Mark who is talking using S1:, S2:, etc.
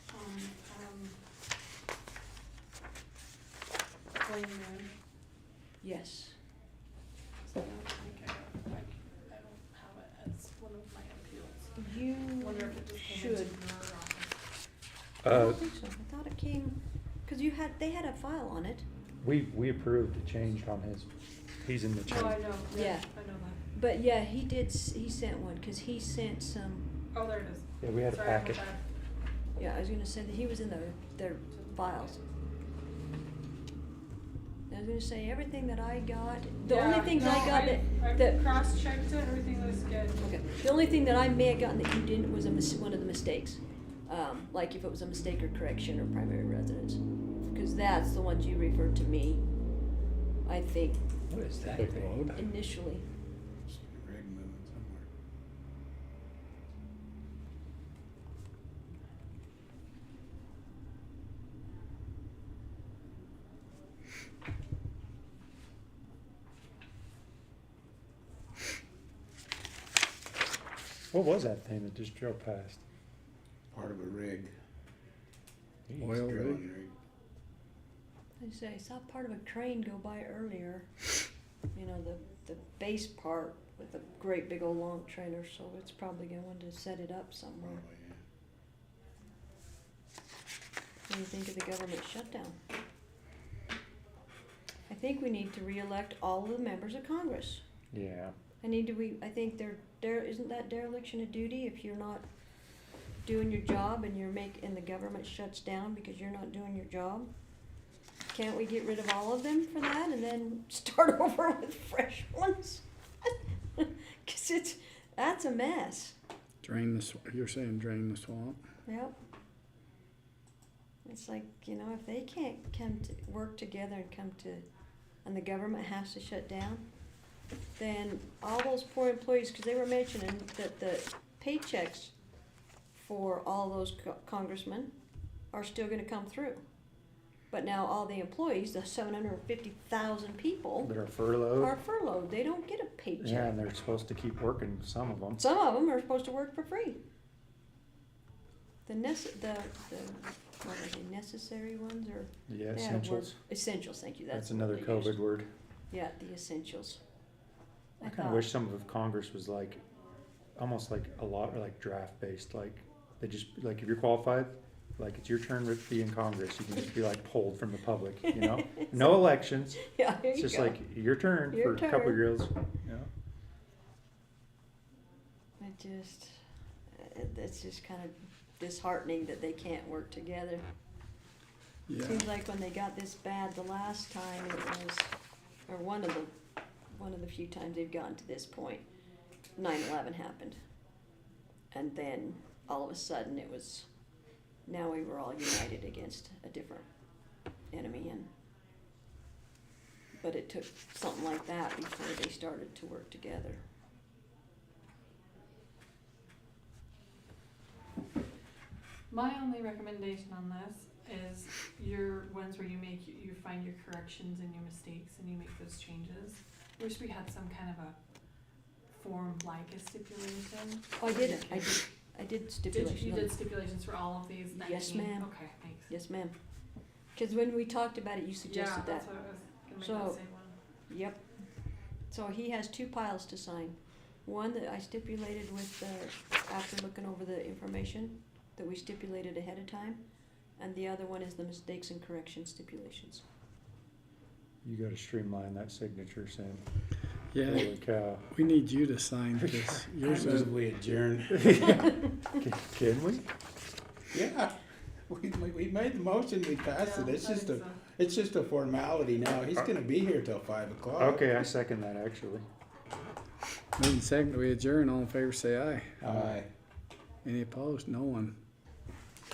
S1: in there?
S2: Yes.
S1: So I don't think I have, I c- I don't have it as one of my appeals.
S2: You
S1: Wonder if it just came into
S2: should.
S1: your office.
S2: I
S3: Uh,
S2: don't think so. I thought it came, cause you had, they had a file on it,
S3: we, we approved the change on his, he's in the
S1: No, I
S3: change.
S1: know, yeah,
S2: Yeah.
S1: I know that.
S2: but yeah, he did, s- he sent one, cause he sent some,
S1: Oh, there it is.
S3: Yeah, we had a
S1: Sorry, I'm
S3: packet.
S1: back.
S2: yeah, I was gonna say that he was in their, their files. I was gonna say, everything that I got, the only
S1: Yeah,
S2: things
S1: no,
S2: I got that,
S1: I
S2: that,
S1: cross-checked it, everything was good.
S2: okay, the only thing that I may have gotten that you didn't was a mis- one of the mistakes. Um, like if it was a mistake or correction or primary residence, cause that's the ones you referred to me, I think,
S4: What is that
S3: Big
S4: thing?
S3: load.
S2: initially.
S4: It's Greg moving somewhere.
S3: What was that thing that just drove past?
S4: Part of a rig.
S3: Jeez.
S4: Oil drilling rig.
S2: I say, I saw part of a crane go by earlier. You know, the, the base part with a great big old long trailer, so it's probably going to set it up somewhere.
S4: Probably, yeah.
S2: What do you think of the government shutdown? I think we need to reelect all of the members of Congress.
S3: Yeah,
S2: I need to, we, I think there, there, isn't that dereliction of duty if you're not doing your job and you're make, and the government shuts down because you're not doing your job? Can't we get rid of all of them for that and then start over with fresh ones? Cause it's, that's a mess,
S5: Drain the, sw- you're saying drain the swamp?
S2: yep. It's like, you know, if they can't come to, work together and come to, and the government has to shut down, then all those poor employees, because they were mentioning that the paychecks for all those co- congressmen are still gonna come through. But now all the employees, the seven hundred and fifty thousand people,
S3: that are furloughed.
S2: are furloughed, they don't get a
S3: Oh. Yeah,
S2: paycheck.
S3: and they're supposed to keep working, some of them.
S2: Some of them are supposed to work for free. The nece- the, the, what are they, necessary ones or?
S3: Yeah,
S2: they had a word-
S3: essentials.
S2: Essentials, thank you, that's.
S3: That's another
S2: what they used.
S3: COVID word.
S2: Yeah, the essentials.
S3: I kind of
S2: thought-
S3: wish some of Congress was like, almost like a lot, like draft based, like they just, like if you're qualified, like it's your turn to be in Congress, you can just be like pulled from the public, you know? No elections,
S2: Yeah, there
S3: it's
S2: you
S3: just
S2: go.
S3: like your turn
S2: Your
S3: for a couple
S2: turn.
S3: of girls, you know?
S2: I just, it- it's just kind of disheartening that they can't work together.
S5: Yeah.
S2: Seems like when they got this bad the last time, it was, or one of the, one of the few times they've gotten to this point, nine eleven happened. And then all of a sudden it was, now we were all united against a different enemy and, but it took something like that before they started to work together.
S1: My only recommendation on this is your ones where you make, you find your corrections and your mistakes and you make those changes. Wish we had some kind of a form like a stipulation.
S2: Oh, I did, I did, I did
S1: Did
S2: stipulation.
S1: you, you
S2: on-
S1: did stipulations for all of these nineteen?
S2: Yes, ma'am.
S1: Okay, thanks.
S2: Yes, ma'am. Cause when we talked about it, you
S1: Yeah,
S2: suggested that.
S1: that's what I was gonna make
S2: So-
S1: the same one.
S2: Yep. So he has two piles to sign. One that I stipulated with the, after looking over the information that we stipulated ahead of time. And the other one is the mistakes and correction stipulations.
S3: You gotta streamline that signature, Sam.
S5: Yeah,
S3: Holy cow.
S5: we need you to sign this. Yours
S4: I
S5: is,
S4: move we adjourn.
S3: Can- Can we?
S4: Yeah, we, we, we made the motion, we passed it,
S1: Yeah,
S4: it's
S1: I
S4: just a,
S1: think so.
S4: it's just a formality now, he's gonna be here till five o'clock.
S3: Okay, I second that actually.
S5: moving second, we adjourn, all in favor, say aye.
S4: Aye.
S5: Any opposed? No one.